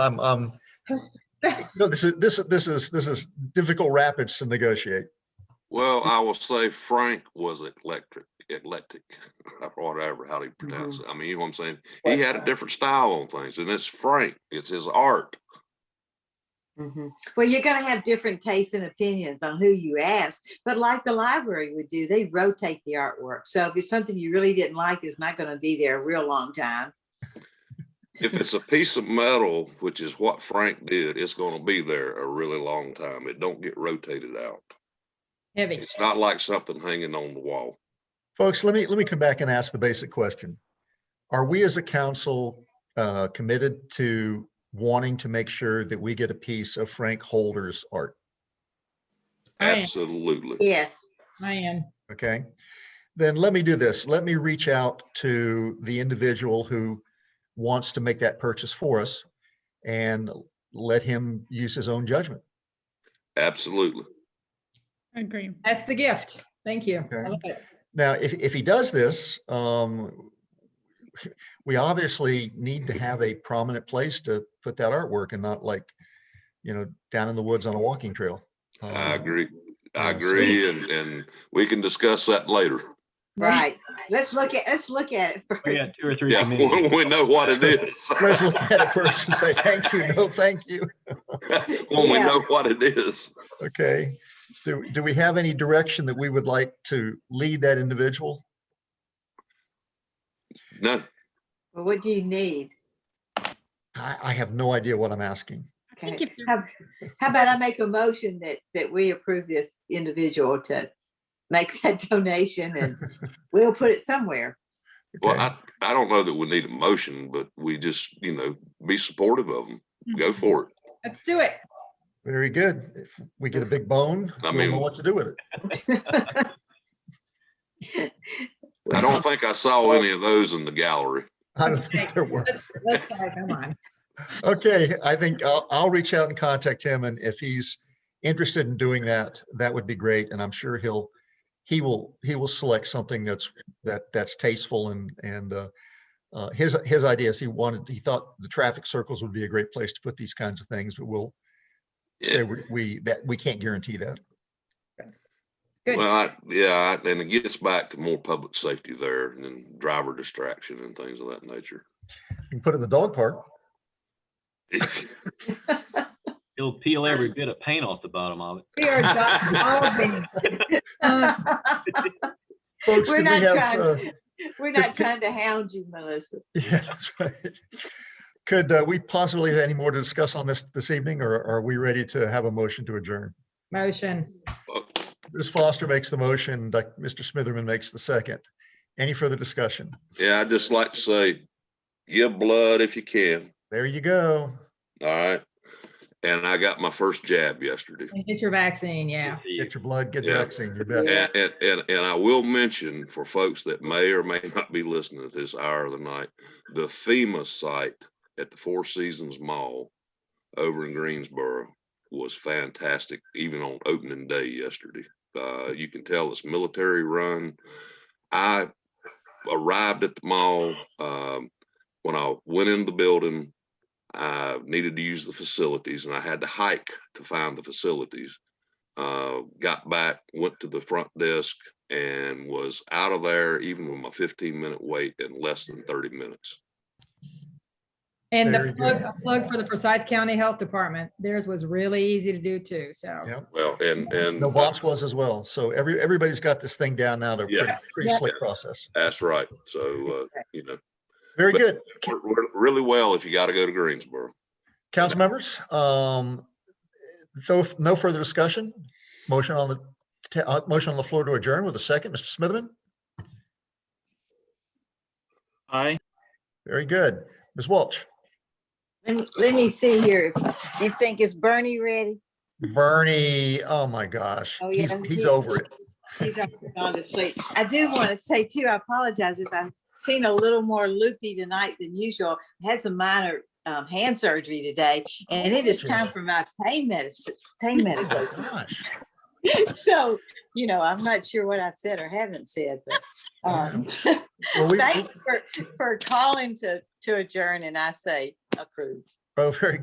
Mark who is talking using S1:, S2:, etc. S1: I'm, um, no, this is, this is, this is, this is difficult rapids to negotiate.
S2: Well, I will say Frank was eclectic, eclectic, or whatever, how do you pronounce it? I mean, you know what I'm saying? He had a different style on things and it's Frank, it's his art.
S3: Mhm. Well, you're gonna have different tastes and opinions on who you ask, but like the library would do, they rotate the artwork. So if it's something you really didn't like, it's not gonna be there a real long time.
S2: If it's a piece of metal, which is what Frank did, it's gonna be there a really long time. It don't get rotated out.
S4: Heavy.
S2: It's not like something hanging on the wall.
S1: Folks, let me, let me come back and ask the basic question. Are we as a council, uh, committed to wanting to make sure that we get a piece of Frank Holder's art?
S4: I am,
S2: Absolutely.
S3: Yes.
S4: I am.
S1: Okay, then let me do this. Let me reach out to the individual who wants to make that purchase for us and let him use his own judgment.
S2: Absolutely.
S5: I agree.
S4: That's the gift. Thank you. I
S1: Okay.
S4: love it.
S1: Now, if, if he does this, um, we obviously need to have a prominent place to put that artwork and not like, you know, down in the woods on a walking trail.
S2: I
S1: Um,
S2: agree.
S1: Yeah,
S2: I
S1: so-
S2: agree. And, and we can discuss that later.
S3: Right. Let's look at, let's look at it
S6: We got
S3: first.
S6: two or three
S2: Yeah,
S6: committees.
S2: when we know what it is.
S1: Let's look at it first and say, thank you, no, thank you.
S2: When we
S3: Yeah.
S2: know what it is.
S1: Okay, do, do we have any direction that we would like to lead that individual?
S2: No,
S3: Well, What do you need?
S1: I, I have no idea what I'm asking.
S3: Okay.
S5: if you're-
S3: How how about I make a motion that, that we approve this individual to make that donation and we'll put it somewhere.
S2: well,
S1: Okay.
S2: I, I don't know that we need a motion, but we just, you know, be supportive of them. Go for it.
S4: Let's do it.
S1: Very good. If we get a big bone,
S2: I
S1: we'll know
S2: mean-
S1: what to do with it.
S2: I don't think I saw any of those in the gallery.
S1: I don't think there were.
S4: Let's go. Come on.
S1: Okay, I think I'll, I'll reach out and contact him and if he's interested in doing that, that would be great. And I'm sure he'll, he will, he will select something that's, that, that's tasteful and, and, uh, uh, his, his ideas, he wanted, he thought the traffic circles would be a great place to put these kinds of things, but we'll say
S2: Yeah,
S1: we- we, that, we can't guarantee that.
S4: Good.
S2: Well, I- yeah, I- and it gets back to more public safety there and then driver distraction and things of that nature.
S1: You can put it in the dog park.
S6: He'll peel every bit of paint off the bottom of it.
S4: We are dissolving. Uh,
S1: Folks, did
S3: We're
S1: we
S3: not
S1: have,
S3: trying-
S1: uh,
S3: We're not
S1: could-
S3: trying to hound you, Melissa.
S1: Yeah, that's right. Could uh, we possibly have any more to discuss on this this evening, or are we ready to have a motion to adjourn?
S4: Motion.
S1: Ms. Foster makes the motion, Doc- Mr. Smitherman makes the second. Any further discussion?
S2: Yeah, I'd just like to say, give blood if you can,
S1: There you go.
S2: all right? And I got my first jab yesterday.
S4: And Get your vaccine. Yeah.
S6: Let's see.
S1: Get your blood, get the
S2: Yeah.
S1: vaccine, you bet.
S2: And, and, and, and I will mention for folks that may or may not be listening at this hour of the night, the FEMA site at the Four Seasons Mall over in Greensboro was fantastic, even on opening day yesterday. Uh, you can tell it's military run. I arrived at the mall, um, when I went in the building, I needed to use the facilities and I had to hike to find the facilities uh, got back, went to the front desk and was out of there even with my fifteen minute wait in less than thirty minutes.
S4: And
S1: Very
S4: the
S1: good.
S4: plug, a plug for the Forsyth County Health Department, theirs was really easy to do too. So
S1: Yeah.
S2: Well, and, and.
S1: No, Vops was as well. So every, everybody's got this thing down now to a
S2: Yeah.
S1: pretty- pretty
S4: Yeah.
S1: slick process.
S2: That's right. So, uh, you know,
S1: Very
S2: But-
S1: good.
S2: worked re- really well if you gotta go to Greensboro.
S1: Council members, um, though, no further discussion. Motion on the, ta- uh, motion on the floor to adjourn with a second. Mr. Smitherman?
S7: Aye.
S1: Very good. Ms. Welch?
S3: Let me, let me see here. You think it's Bernie ready?
S1: Bernie, oh my gosh,
S3: Oh,
S1: he's,
S3: yeah,
S1: he's
S3: he-
S1: over it.
S3: He's already gone to sleep. I do want to say too, I apologize if I've seen a little more loopy tonight than usual. I Had some minor um, hand surgery today and it is time for my pain medicine, pain
S1: Oh my
S3: medication.
S1: gosh.
S3: So, you know, I'm not sure what I've said or haven't said, but um,
S1: Well, we,
S3: thanks for, for calling to, to adjourn and I say approved.
S1: oh, very